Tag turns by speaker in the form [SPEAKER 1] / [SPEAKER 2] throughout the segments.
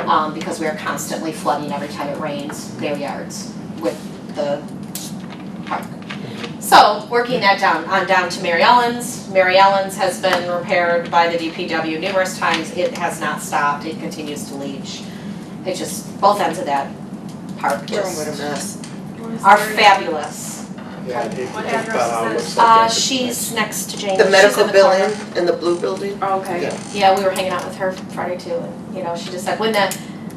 [SPEAKER 1] um, because we are constantly flooding every time it rains their yards with the park. So, working that down, on down to Mary Ellen's. Mary Ellen's has been repaired by the DPW numerous times. It has not stopped. It continues to leach. It just, both ends of that park just
[SPEAKER 2] mess.
[SPEAKER 1] are fabulous.
[SPEAKER 3] Yeah, it-
[SPEAKER 4] What
[SPEAKER 3] it
[SPEAKER 4] address is
[SPEAKER 3] about
[SPEAKER 4] it?
[SPEAKER 3] looks like
[SPEAKER 1] Uh,
[SPEAKER 3] that's-
[SPEAKER 1] she's next to James.
[SPEAKER 2] The
[SPEAKER 1] She's
[SPEAKER 2] medical
[SPEAKER 1] in the corner.
[SPEAKER 2] building and the blue building?
[SPEAKER 4] Oh, Okay.
[SPEAKER 1] Yeah, we were hanging out with her Friday too, and you know, she just said when the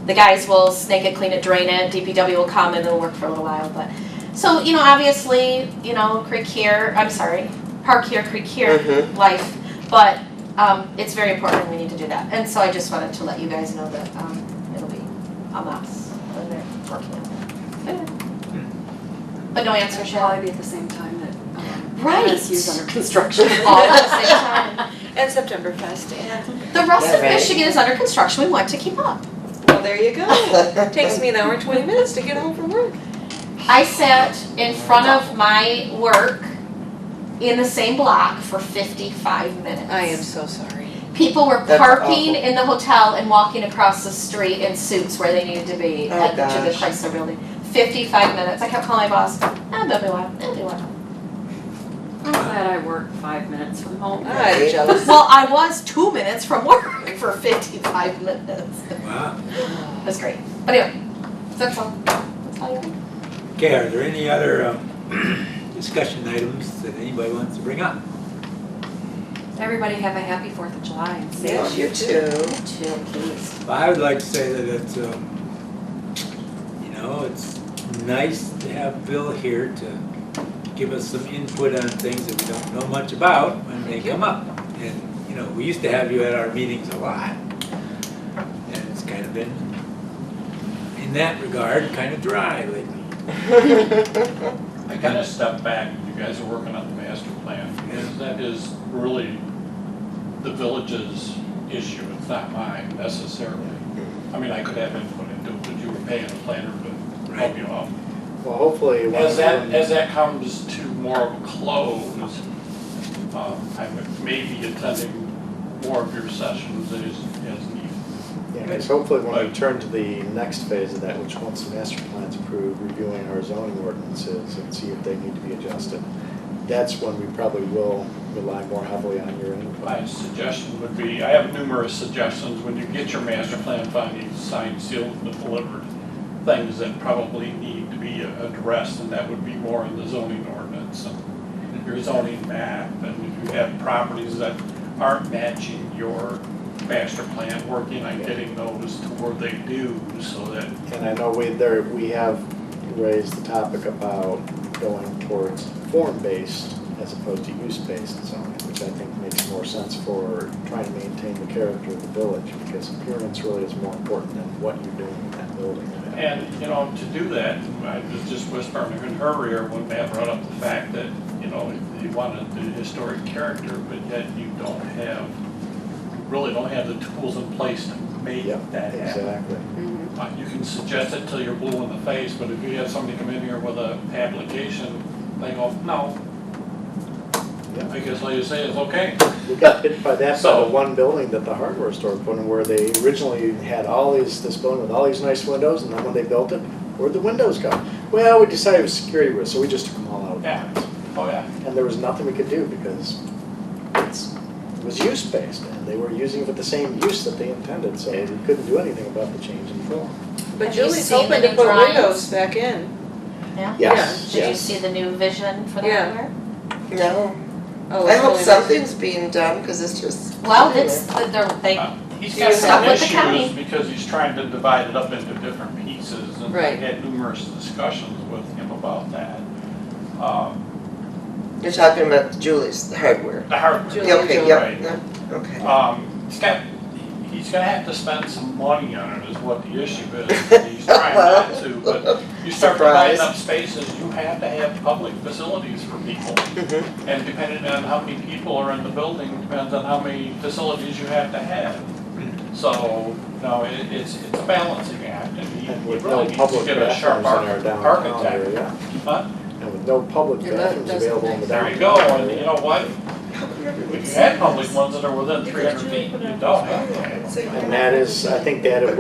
[SPEAKER 1] the guys will snake it, clean it, drain it, DPW will come and it'll work for a little while, but so, you know, obviously, you know, creek here, I'm sorry, park here, creek here,
[SPEAKER 2] Mhm.
[SPEAKER 1] life, but um it's very important and we need to do that. And so I just wanted to let you guys know that um it'll be a mess when they're working on it. But no answer,
[SPEAKER 4] It
[SPEAKER 1] shall I?
[SPEAKER 4] be at the same time that, um,
[SPEAKER 1] Right.
[SPEAKER 4] MSU's under construction.
[SPEAKER 1] All at the same time.
[SPEAKER 5] And September Fest, and,
[SPEAKER 1] The rest of
[SPEAKER 2] Yeah, right.
[SPEAKER 1] Michigan is under construction, we want to keep up.
[SPEAKER 5] well, there you go. Takes me an hour and twenty minutes to get home from work.
[SPEAKER 1] I sat in front of my work in the same block for 55 minutes.
[SPEAKER 5] so sorry.
[SPEAKER 1] People were
[SPEAKER 2] That's
[SPEAKER 1] parking
[SPEAKER 2] awful.
[SPEAKER 1] in the hotel and walking across the street in suits where they needed to be
[SPEAKER 2] Oh,
[SPEAKER 1] at to the
[SPEAKER 2] gosh.
[SPEAKER 1] Chrysler building. 55 minutes. I kept calling my boss, "Ah, they'll be one, they'll be one."
[SPEAKER 4] I'm glad I work five minutes from home.
[SPEAKER 5] I'm jealous.
[SPEAKER 1] Well, I was two minutes from work for 55 minutes.
[SPEAKER 6] Wow.
[SPEAKER 1] It
[SPEAKER 5] Mm-hmm.
[SPEAKER 1] was great. But anyway, that's all. That's all you think?
[SPEAKER 6] Okay, are there any other um, discussion items that anybody wants to bring up?
[SPEAKER 4] Everybody have a happy Fourth of July and safe.
[SPEAKER 2] Yeah, you too.
[SPEAKER 1] Two, please.
[SPEAKER 6] Well, I would like to say that it's, um, you know, it's nice to have Bill here to give us some input on things that we don't know much about when they come up. And, you know, we used to have you at our meetings a lot. And it's kind of been, in that regard, kind of dry lately.
[SPEAKER 7] I kind of stepped back, you guys are working on the master plan, because that is really the village's issue, it's not mine necessarily. I mean, I could have input into it, but you were paying the planner to help you out.
[SPEAKER 3] Well, hopefully, one
[SPEAKER 7] As
[SPEAKER 3] of
[SPEAKER 7] that,
[SPEAKER 3] them,
[SPEAKER 7] as that comes to more of a close, um, I would maybe attending more of your sessions as, as needed.
[SPEAKER 3] yeah, 'cause hopefully when we
[SPEAKER 7] Right.
[SPEAKER 3] turn to the next phase of that, which once the master plan's approved, reviewing our zoning ordinances and see if they need to be adjusted. That's when we probably will rely more heavily on your input.
[SPEAKER 7] My suggestion would be, I have numerous suggestions, when you get your master plan findings signed, sealed, and delivered, things that probably need to be addressed, and that would be more in the zoning ordinance, and your zoning map, and if you have properties that aren't matching your master plan, working on getting those to where they do, so that
[SPEAKER 3] And I know we, there, we have raised the topic about going towards form-based as opposed to use-based zoning, which I think makes more sense for trying to maintain the character of the village, because appearance really is more important than what you're doing in that building.
[SPEAKER 7] And, you know, to do that, I was just whispering in her ear when Matt brought up the fact that, you know, you wanted the historic character, but yet you don't have, you really don't have the tools in place to make
[SPEAKER 3] Yep,
[SPEAKER 7] that happen.
[SPEAKER 3] exactly.
[SPEAKER 7] Uh, You can suggest it till you're blue in the face, but if you have somebody come in here with a application, they go, no.
[SPEAKER 3] Yeah.
[SPEAKER 7] I guess all you say is, okay,
[SPEAKER 3] We got hit by that by the
[SPEAKER 7] So-
[SPEAKER 3] one building that the hardware store put in, where they originally had all these, this building with all these nice windows, and then when they built it, where'd the windows go? Well, we decided it was security risk, so we just took them all out.
[SPEAKER 7] yeah, oh yeah.
[SPEAKER 3] And there was nothing we could do because it's, it was use-based, and they were using it for the same use that they intended, so we couldn't do anything about the change in form.
[SPEAKER 5] But
[SPEAKER 1] Have you
[SPEAKER 5] Julie's
[SPEAKER 1] seen the
[SPEAKER 5] hoping to
[SPEAKER 1] new
[SPEAKER 5] put
[SPEAKER 1] drawings?
[SPEAKER 5] windows back in.
[SPEAKER 1] Yeah?
[SPEAKER 3] Yes,
[SPEAKER 1] Did you
[SPEAKER 3] yes.
[SPEAKER 1] see the new vision for the
[SPEAKER 5] Yeah.
[SPEAKER 1] hardware?
[SPEAKER 2] No,
[SPEAKER 5] Oh,
[SPEAKER 2] I
[SPEAKER 5] it's
[SPEAKER 2] hope
[SPEAKER 5] really
[SPEAKER 2] something's being done, cause it's just.
[SPEAKER 1] Well, it's, the- the- they
[SPEAKER 7] He's
[SPEAKER 2] You're
[SPEAKER 7] got
[SPEAKER 2] stuck
[SPEAKER 7] Um, some
[SPEAKER 1] with the county.
[SPEAKER 7] issues because he's trying to divide it up into different pieces, and I
[SPEAKER 5] Right.
[SPEAKER 7] had numerous discussions with him about that. Um,
[SPEAKER 2] You're talking about Julie's hardware.
[SPEAKER 7] The hardware.
[SPEAKER 5] Julie,
[SPEAKER 2] Yeah, okay,
[SPEAKER 7] Right.
[SPEAKER 2] yep, yep, okay.
[SPEAKER 7] Um, he's got, he's gonna have to spend some money on it is what the issue is, he's trying not to, but you start
[SPEAKER 2] Surprise.
[SPEAKER 7] dividing up spaces, you have to have public facilities for people. And depending on how many people are in the building, depends on how many facilities you have to have. So, no, it, it's, it's a balancing act, and you
[SPEAKER 3] And
[SPEAKER 7] you
[SPEAKER 3] with no
[SPEAKER 7] really need to
[SPEAKER 3] public
[SPEAKER 7] get a
[SPEAKER 3] bathrooms in
[SPEAKER 7] sharp
[SPEAKER 3] our
[SPEAKER 7] arch-
[SPEAKER 3] downtown
[SPEAKER 7] architect.
[SPEAKER 3] area,
[SPEAKER 7] Huh?
[SPEAKER 3] and with no public
[SPEAKER 4] Your
[SPEAKER 3] bathrooms
[SPEAKER 4] doesn't
[SPEAKER 3] available in the
[SPEAKER 7] There you
[SPEAKER 3] downtown.
[SPEAKER 7] go, and
[SPEAKER 3] area.
[SPEAKER 7] you know what? If you had public ones that are within three hundred feet, you don't have that.
[SPEAKER 3] And that is, I think that it